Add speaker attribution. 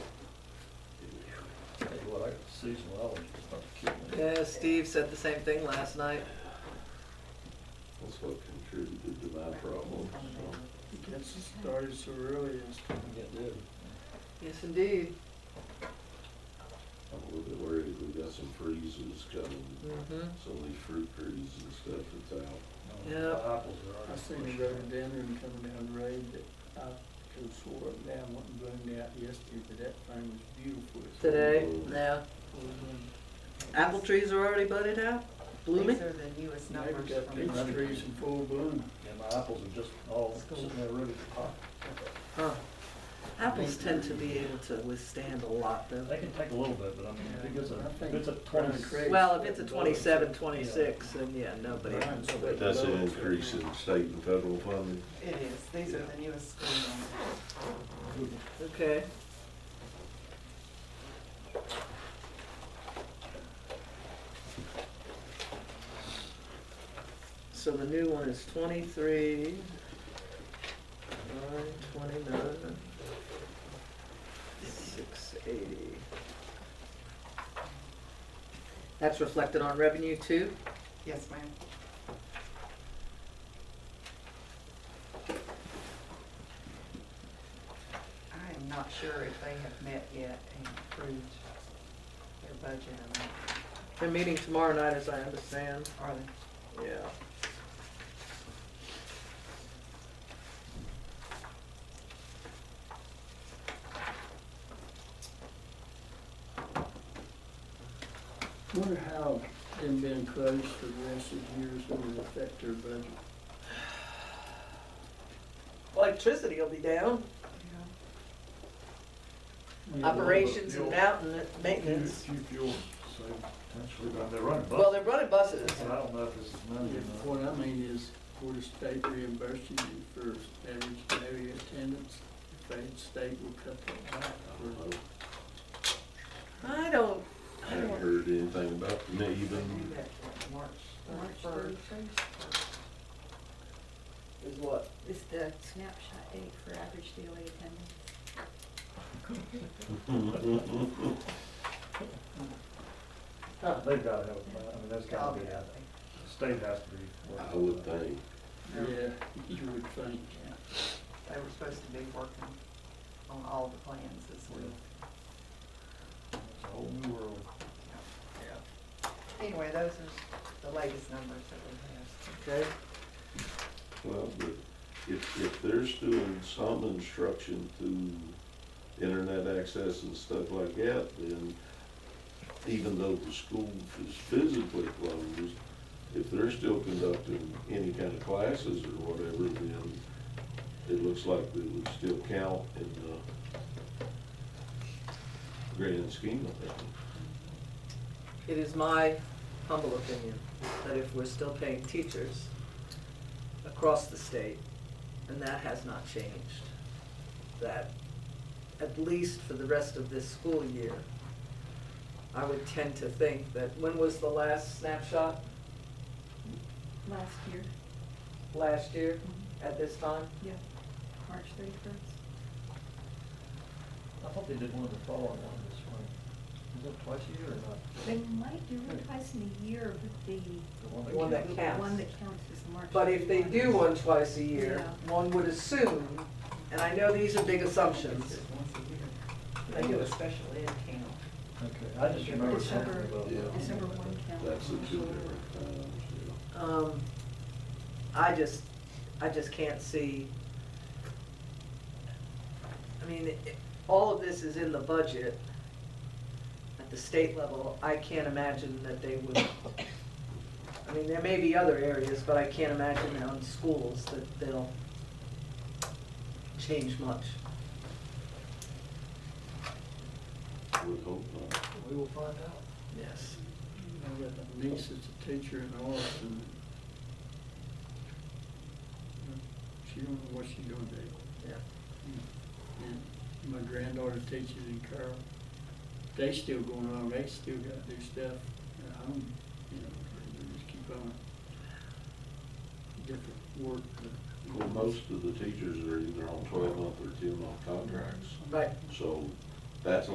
Speaker 1: seasonal allergies about to kill me.
Speaker 2: Yeah, Steve said the same thing last night.
Speaker 3: That's what contributed to my problem, so.
Speaker 4: Gets started so early, it's
Speaker 1: It did.
Speaker 2: Yes, indeed.
Speaker 3: I'm a little bit worried, we got some freezes coming,
Speaker 2: Mm-hmm.
Speaker 3: some of these fruit trees and stuff that's out.
Speaker 1: No,
Speaker 2: Yeah.
Speaker 1: the Apples are
Speaker 4: I
Speaker 1: already
Speaker 4: seen a
Speaker 1: pushed.
Speaker 4: rhododendron coming down the road that I could have swore up and down wasn't blown out yesterday, but that thing was beautiful. It's
Speaker 2: Today, Mm-hmm.
Speaker 3: Mm.
Speaker 2: yeah.
Speaker 4: full
Speaker 2: Apple trees are already budded out, blooming.
Speaker 5: These are the newest
Speaker 4: bloom.
Speaker 5: numbers
Speaker 4: They've
Speaker 5: from,
Speaker 4: got peach trees in full bloom.
Speaker 1: And my apples are just all sitting there ready to pop.
Speaker 2: Huh. Apples tend to be able to withstand a lot though.
Speaker 1: They can take a little bit, but I mean, I think it's
Speaker 4: Yeah, I
Speaker 1: a,
Speaker 4: think
Speaker 1: if it's a
Speaker 4: Brian
Speaker 1: twenty.
Speaker 4: Craig-
Speaker 2: Well, if it's a 27, 26, then yeah, nobody.
Speaker 4: Brian's
Speaker 3: But
Speaker 4: sweating
Speaker 3: that's an
Speaker 4: bullets.
Speaker 3: increase in state and federal funding.
Speaker 5: it is, these are the newest school numbers.
Speaker 2: Okay. So the new one is twenty-three, nine twenty-nine, six eighty. That's reflected on revenue too?
Speaker 5: Yes, ma'am. I am not sure if they have met yet and approved their budget or not,
Speaker 2: They're meeting tomorrow night, as I understand.
Speaker 5: are they?
Speaker 2: Yeah.
Speaker 4: Wonder how them being closed for the rest of the year is gonna affect their budget.
Speaker 2: Electricity will be down,
Speaker 5: Yeah.
Speaker 2: operations and
Speaker 1: Fuel.
Speaker 2: mountain maintenance.
Speaker 1: Few few fuel, so potentially, but they're running
Speaker 2: Well,
Speaker 1: buses.
Speaker 2: they're running buses.
Speaker 1: And I don't know if this is money or not.
Speaker 4: What I mean is, would the state reimburse you for average daily attendance? If they, the state will cut that back
Speaker 3: I
Speaker 4: for
Speaker 3: don't know.
Speaker 2: I don't,
Speaker 3: I
Speaker 2: I
Speaker 3: haven't
Speaker 2: don't,
Speaker 3: heard anything about them
Speaker 5: They
Speaker 3: even.
Speaker 5: do that for March
Speaker 6: March
Speaker 5: thirty-first.
Speaker 2: is what?
Speaker 6: Is the snapshot date for average daily attendance?
Speaker 1: They've gotta have a plan, I mean, that's gotta be, the
Speaker 5: Obviously.
Speaker 1: state has to be.
Speaker 3: I would think.
Speaker 4: Yeah, you would think.
Speaker 5: They were supposed to be working on all the plans this week.
Speaker 1: It's a whole new world.
Speaker 5: Anyway, those are the latest numbers that we have.
Speaker 2: Okay,
Speaker 3: Well, but if, if they're still doing some instruction through internet access and stuff like that, then even though the school is physically closed, if they're still conducting any kind of classes or whatever, then it looks like it would still count in the grand scheme of things.
Speaker 2: it is my humble opinion that if we're still paying teachers across the state, and that has not changed, that at least for the rest of this school year, I would tend to think that, when was the last snapshot?
Speaker 6: Last year,
Speaker 2: Last year, at this time?
Speaker 6: March thirty-first?
Speaker 1: I thought they did one in the fall and one this spring. Is it twice a year or not?
Speaker 6: They might do it twice in a year, but the,
Speaker 1: The one that
Speaker 2: One
Speaker 1: came-
Speaker 2: that
Speaker 6: the
Speaker 2: counts.
Speaker 6: one that counts is March.
Speaker 2: But if they do
Speaker 6: 31st.
Speaker 2: one twice a year,
Speaker 6: Yeah.
Speaker 2: one would assume, and I know these are big assumptions,
Speaker 5: Once a year. They do a special ed camp.
Speaker 1: Okay, I just remember something
Speaker 6: December-
Speaker 1: about.
Speaker 3: Yeah.
Speaker 6: December one counts.
Speaker 3: That's the two different times, yeah.
Speaker 2: um, I just, I just can't see. I mean, it- all of this is in the budget at the state level. I can't imagine that they would, I mean, there may be other areas, but I can't imagine on schools that they'll change much.
Speaker 3: I would hope not.
Speaker 1: We will find out.
Speaker 2: Yes.
Speaker 4: I got a niece that's a teacher in Austin. She don't know what she's gonna do.
Speaker 2: Yeah.
Speaker 4: And my granddaughter teaches in Carroll. They still going on, they still got their stuff at home, you know, they just keep on. Different work. but-
Speaker 3: Well, most of the teachers are either on twelve-month or ten-month contracts,
Speaker 2: Right.
Speaker 3: so that's